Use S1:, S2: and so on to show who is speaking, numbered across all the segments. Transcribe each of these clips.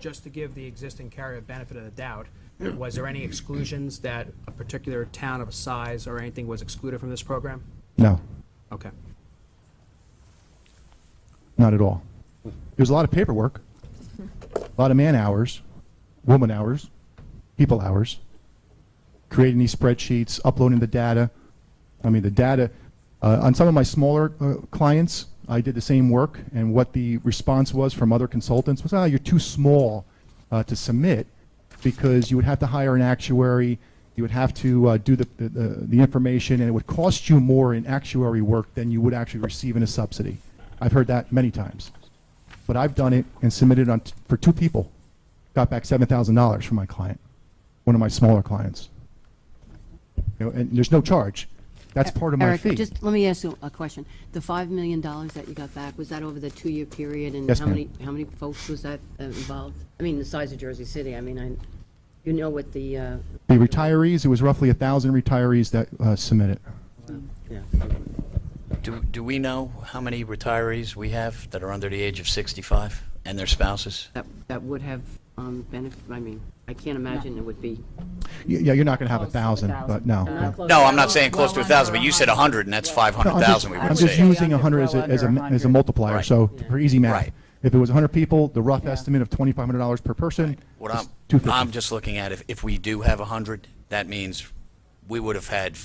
S1: just to give the existing carrier benefit of the doubt, was there any exclusions that a particular town of a size or anything was excluded from this program?
S2: No,
S1: Okay.
S2: not at all. It was a lot of paperwork, a lot of man hours, woman hours, people hours, creating these spreadsheets, uploading the data. I mean, the data uh, on some of my smaller uh, clients, I did the same work, and what the response was from other consultants was, "Ah, you're too small uh, to submit because you would have to hire an actuary, you would have to uh, do the, the, the the information, and it would cost you more in actuary work than you would actually receive in a subsidy." I've heard that many times, but I've done it and submitted on t- for two people, got back seven thousand dollars from my client, one of my smaller clients. You know, and there's no charge. That's part of my
S3: E- Eric,
S2: fee.
S3: just let me ask you a question. The $5 million that you got back, was that over the two-year
S2: Yes,
S3: period?
S2: ma'am.
S3: And how many, how many folks was that uh, involved? I mean, the size of Jersey City, I mean, I, you know what the, uh,
S2: The retirees, it was roughly a thousand retirees that uh, submitted.
S3: yeah.
S4: Do, do we know how many retirees we have that are under the age of 65 and their spouses?
S3: that, that would have um, benefit, I mean, I can't imagine it would be.
S2: Y- Yeah, you're not going to have a
S5: Close to a
S2: thousand, but
S5: thousand.
S2: no.
S5: No.
S2: no.
S4: No, I'm not saying close to
S5: Well,
S4: a 1,000,
S5: under
S4: but you said 100, and that's
S2: No, I'm just-
S4: 500,000 we
S2: I'm
S4: were
S5: would
S2: just
S5: say.
S4: saying.
S2: using a hundred as a,
S5: Well
S2: as a,
S5: under
S2: m- as a
S5: 100.
S2: multiplier,
S4: Right.
S2: so for easy math.
S4: Right.
S2: If it was hundred people, the rough
S5: Yeah.
S2: estimate of twenty-five hundred dollars per person
S4: What
S2: is
S4: I'm,
S2: two fifty.
S4: I'm just looking at, if, if we do have 100, that means we would have had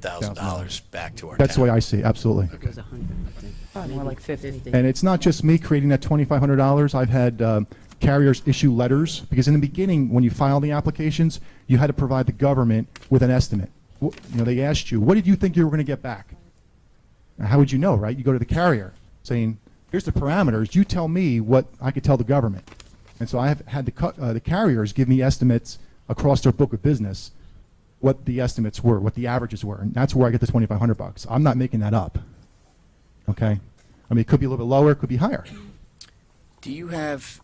S4: $500,000 back to our
S2: That's the way
S4: town.
S2: I see, it, absolutely.
S3: It was 100, I think.
S5: Probably more
S3: Maybe
S5: like 50.
S2: And it's not just me creating that twenty-five hundred dollars. I've had um, carriers issue letters because in the beginning, when you filed the applications, you had to provide the government with an estimate. Wh- You know, they asked you, "What did you think you were going to get back?" Now, How would you know, right? You go to the carrier saying, "Here's the parameters. You tell me what I could tell the government." And so I have had the cu- uh, the carriers give me estimates across their book of business, what the estimates were, what the averages were, and that's where I get the twenty-five hundred bucks. I'm not making that up. Okay? I mean, it could be a little bit lower, it could be higher.
S4: Do you have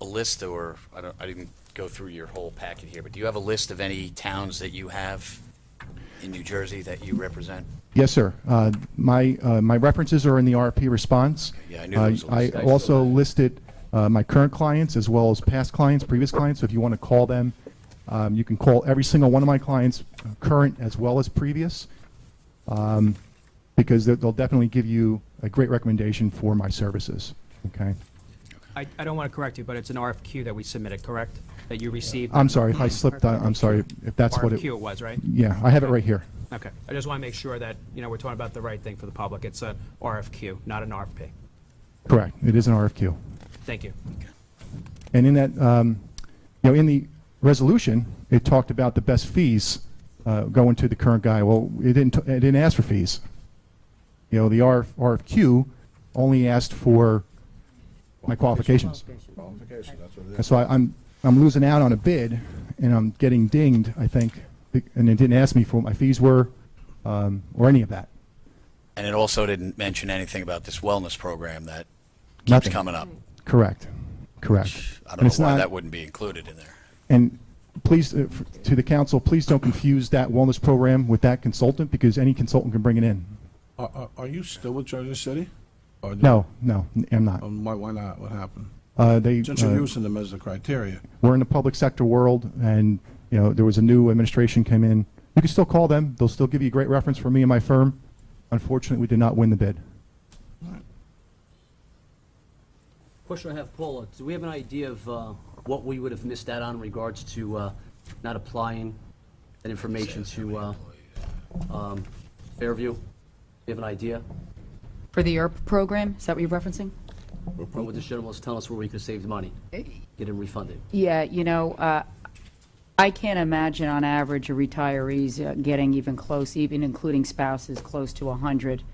S4: a list, or, I don't, I didn't go through your whole packet here, but do you have a list of any towns that you have in New Jersey that you represent?
S2: Yes, sir. Uh, My, uh, my references are in the RFP response.
S4: Yeah, I knew there was a
S2: Uh, I
S4: list.
S2: also listed uh, my current clients as well as past clients, previous clients, so if you want to call them, um, you can call every single one of my clients, uh, current as well as previous, um, because they'll- they'll definitely give you a great recommendation for my services, okay?
S1: I, I don't want to correct you, but it's an RFQ that we submitted, correct? That you received?
S2: I'm sorry if I slipped, I- I'm sorry if Um, that's what it...
S1: RFQ it was, right?
S2: Yeah, I have it right here.
S1: Okay. I just want to make sure that, you know, we're talking about the right thing for the public. It's an RFQ, not an RFP.
S2: Correct, it is an RFQ.
S1: Thank you.
S2: And in that, um, you know, in the resolution, it talked about the best fees uh, going to the current guy. Well, it didn't, it didn't ask for fees. You know, the RF RFQ only asked for my qualifications.
S6: Qualification, that's what it
S2: And
S6: is.
S2: so I- I'm, I'm losing out on a bid, and I'm getting dinged, I think, be- and it didn't ask me for what my fees were, um, or any of that.
S4: And it also didn't mention anything about this wellness program that keeps
S2: Nothing.
S4: coming up.
S2: Correct, correct.
S4: I
S2: And
S4: don't
S2: it's
S4: know why
S2: not-
S4: that wouldn't be included in there.
S2: And please, uh, f- to the council, please don't confuse that wellness program with that consultant, because any consultant can bring it in.
S6: Are, are- are you still with Jersey City? Or did-
S2: No, no, n- I'm not.
S6: Um, Why, why not? What happened?
S2: Uh, They,
S6: Since you're
S2: uh,
S6: using them as the criteria.
S2: we're in the public sector world, and, you know, there was a new administration came in. You can still call them, they'll still give you a great reference for me and my firm. Unfortunately, we did not win the bid.
S7: Question I have, Paula, do we have an idea of uh, what we would have missed out on in regards to uh, not applying that information to uh, um, Fairview? Do you have an idea?
S5: For the ERP program, is that what you're referencing?
S7: Or would the journalist tell us where we could have saved money, get it refunded?
S5: Yeah, you know, uh, I can't imagine on average a retiree's uh, getting even close, even including spouses, close to 100,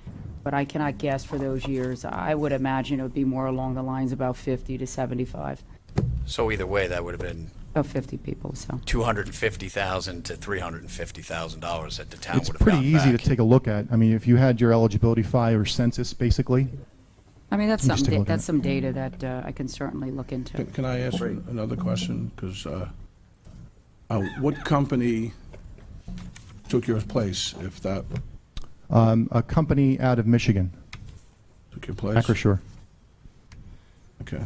S5: but I cannot guess for those years. I would imagine it would be more along the lines about 50 to 75,
S4: So either way, that would have been
S5: about 50 people, so.
S4: two hundred and fifty thousand to three hundred and fifty thousand dollars that the town
S2: It's
S4: would have
S2: pretty
S4: gotten
S2: easy to
S4: back.
S2: take a look at. I mean, if you had your eligibility file or census, basically,
S5: I mean, that's
S2: Let me just
S5: something,
S2: take a
S5: da-
S2: look at
S5: that's
S2: it.
S5: some data that uh, I can certainly look into.
S6: Can, can I ask an- another question? Because, uh, uh, what company took your place, if that
S2: um, a company out of Michigan,
S6: took your place?
S2: Acrisure.
S6: Okay.